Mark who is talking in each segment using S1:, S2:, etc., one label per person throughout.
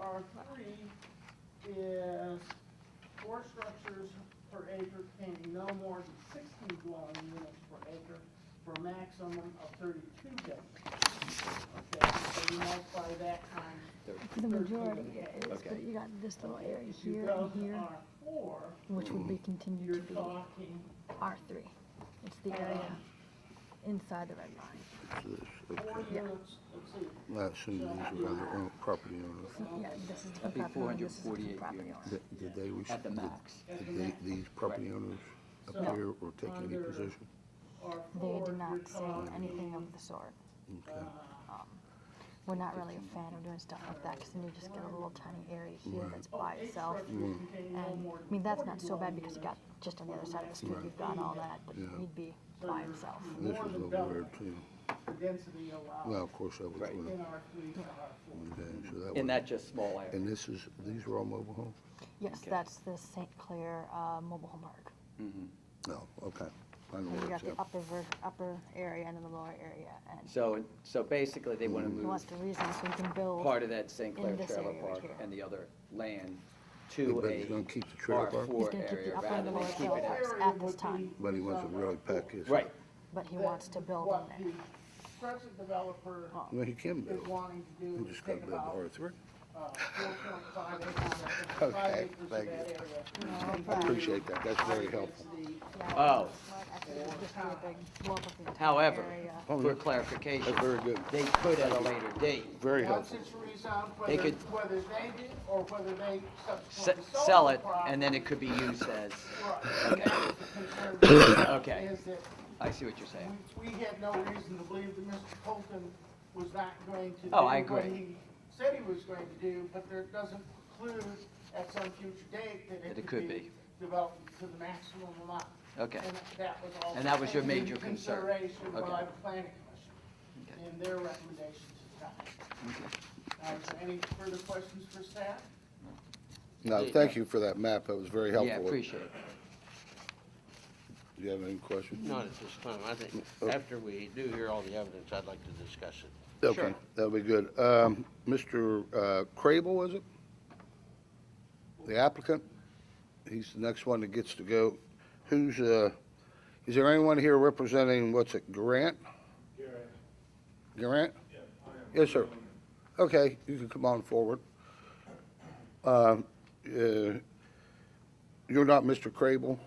S1: R three is four structures per acre containing no more than sixteen dwelling units per acre for a maximum of thirty-two buildings. Okay, so you multiply that times
S2: For the majority,
S1: Okay.
S2: it is, but you got this little
S1: Okay,
S2: area
S1: If you
S2: here
S1: go
S2: and
S1: to
S2: here,
S1: R four,
S2: which would be
S1: you're
S2: continued to be
S1: talking,
S2: R three. It's the area
S1: Um,
S2: inside the red line.
S1: four
S2: Yeah.
S1: units, let's see,
S3: Last individual by the own- property owner.
S2: Yeah, this is the
S4: That'd be
S2: property owner, this is the
S4: 448
S2: property
S4: units.
S2: owner.
S3: Did- Did they, rec-
S4: At the
S3: did-
S4: max.
S3: did they- these property owners appear or take any
S1: Under-
S3: position?
S1: R
S2: They
S1: four,
S2: did
S1: you're
S2: not say
S1: talking,
S2: anything of the sort. Um,
S3: Okay.
S2: We're not really a fan of doing stuff like that, because then you just get a little tiny area here that's
S1: oh,
S2: by
S1: eight
S2: itself.
S1: structures containing no
S2: And,
S1: more
S2: I mean, that's
S1: than
S2: not
S1: 40
S2: so bad
S1: dwelling
S2: because you got,
S1: units.
S2: just on the other side of the street, you've got all that, but
S3: Yeah.
S2: he'd be
S1: So
S2: by
S1: you're-
S2: himself.
S1: you're
S3: This
S1: more
S3: is
S1: than
S3: a
S1: double
S3: word too.
S1: the density allowed
S3: Well, of course, that was
S4: Right.
S3: one
S1: in
S3: of
S1: R three to R four.
S3: them, so that
S4: In
S3: was.
S4: that just small area.
S3: And this is, these are all mobile homes?
S2: Yes,
S4: Okay.
S2: that's the St. Clair uh, Mobile Home Park.
S3: No, okay. I
S2: And
S3: know
S2: you
S3: where
S2: got
S3: it's
S2: the
S3: at.
S2: upper, ver- upper area and then the lower area, and
S4: So, so basically, they
S3: Mm-hmm.
S4: want to
S2: he
S4: move
S2: wants to reason, so you can build.
S4: part of that St. Clair
S2: in this
S4: Trailer
S2: area right
S4: Park
S2: here.
S4: and the other land to
S3: But he's
S4: a
S3: gonna keep the trailer park,
S4: R4
S2: He's gonna keep the
S4: area
S2: upper and
S4: rather
S2: the
S4: than
S2: lower
S4: keep
S2: floor.
S4: it
S2: Parks
S1: Area
S2: at
S1: would
S2: this
S1: be
S2: time.
S3: but he wants to
S1: zoned
S3: really
S1: R4.
S3: pack his.
S4: Right,
S2: But he
S1: That-
S2: wants to build on
S1: what
S2: there. Oh.
S1: the Crescent developer
S3: Well, he can
S1: is
S3: build.
S1: wanting to do
S3: He
S1: is
S3: just gotta
S1: take
S3: build the
S1: about
S3: R three.
S1: uh, 4.5 acres,
S3: Okay,
S1: five acres of
S3: thank
S1: that area.
S3: you. I appreciate that. That's very helpful.
S4: Oh.
S2: I think it would just be a big blow up of the entire
S4: However,
S2: area.
S4: for clarification,
S3: Oh, That's very good.
S4: they could at a later date
S3: Very
S1: Once
S3: helpful.
S1: it's rezoned,
S4: They
S1: whether,
S4: could-
S1: whether they do or whether they
S4: se-
S1: subsequently
S4: sell
S1: the
S4: it, and then it could be used as,
S1: property. Right, and that was the concern,
S4: Okay.
S1: Is that
S4: I see what you're saying.
S1: we, we had no reason to believe that Mr. Colton was not going to do
S4: Oh, I
S1: what
S4: agree.
S1: he said he was going to do, but there doesn't preclude at some future date that it could be developed to the maximum amount.
S4: Okay.
S1: And that was all.
S4: And that was your
S1: taken
S4: major
S1: into
S4: concern.
S1: Consideration
S4: Okay.
S1: by the planning commission
S4: Okay.
S1: in their recommendations at the time. Uh, is there any further questions for staff?
S3: No, thank you for that map. That was very helpful.
S4: Yeah, appreciate it.
S3: Do you have any questions?
S5: Not at this time. I think
S3: Okay.
S5: after we do hear all the evidence, I'd like to discuss it.
S3: Okay, that'll be good. Um, Mr. uh, Crable, was it? The applicant? He's the next one that gets to go. Who's, uh, is there anyone here representing, what's it, Grant? Grant. Grant? Yes, sir. Okay, you can come on forward. Um, uh, You're not Mr. Crable?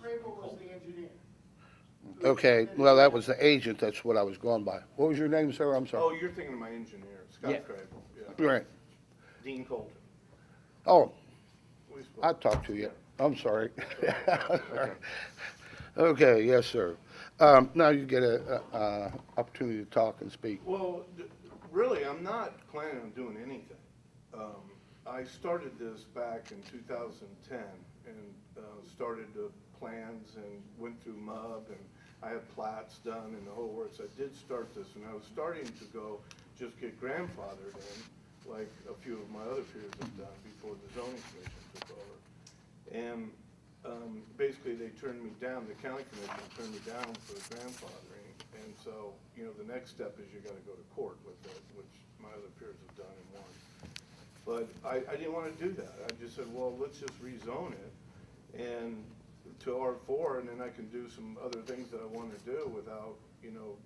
S1: Crable was the engineer.
S3: Okay, well, that was the agent, that's what I was going by. What was your name, sir? I'm
S6: Oh,
S3: sorry.
S6: you're thinking of my engineer,
S4: Yeah.
S6: Scott Crable, yeah.
S3: Grant.
S6: Dean Colton.
S3: Oh,
S6: We spoke.
S3: I talked to you. I'm sorry. Okay, yes, sir. Um, Now you get a, a- a opportunity to talk and speak.
S6: Well, d- really, I'm not planning on doing anything. Um, I started this back in 2010 and uh, started the plans and went through MUB and I had plats done and the whole works. I did start this and I was starting to go just get grandfathered in, like a few of my other peers have done before the zoning commission took over. And um, basically, they turned me down, the county commission turned me down for grandfathering. And so, you know, the next step is you gotta go to court with it, which my other peers have done and won. But I, I didn't wanna do that. I just said, well, let's just rezone it and to R four, and then I can do some other things that I wanna do without, you know,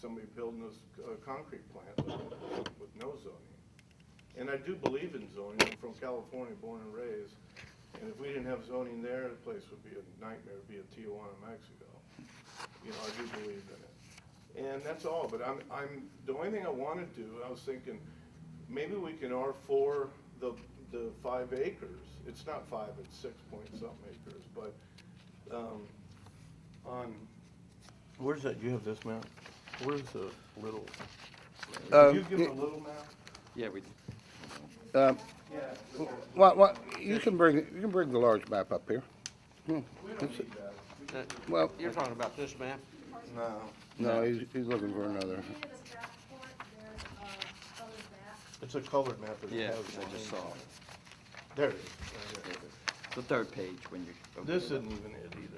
S6: somebody building us a concrete plant with no zoning. And I do believe in zoning, I'm from California, born and raised, and if we didn't have zoning there, the place would be a nightmare, it'd be a Tijuana, Mexico. You know, I do believe in it. And that's all, but I'm, I'm, the only thing I wanna do, I was thinking, maybe we can R four the, the five acres. It's not five, it's six point something acres, but, um, on. Where's that, you have this map? Where's the little?
S3: Um,
S6: Did you give
S3: yeah.
S6: a little map?
S4: Yeah, we,
S3: Um,
S6: Yeah.
S3: Well, well, you can bring, you can bring the large map up here.
S6: We don't need that.
S3: Well,
S5: You're talking about this map?
S6: No.
S3: no, he's, he's looking for another.
S6: It's a colored map. that
S4: yeah,
S6: has
S4: I just saw
S6: one.
S4: it.
S6: There it is.
S4: The third page when you.
S6: This isn't even it either.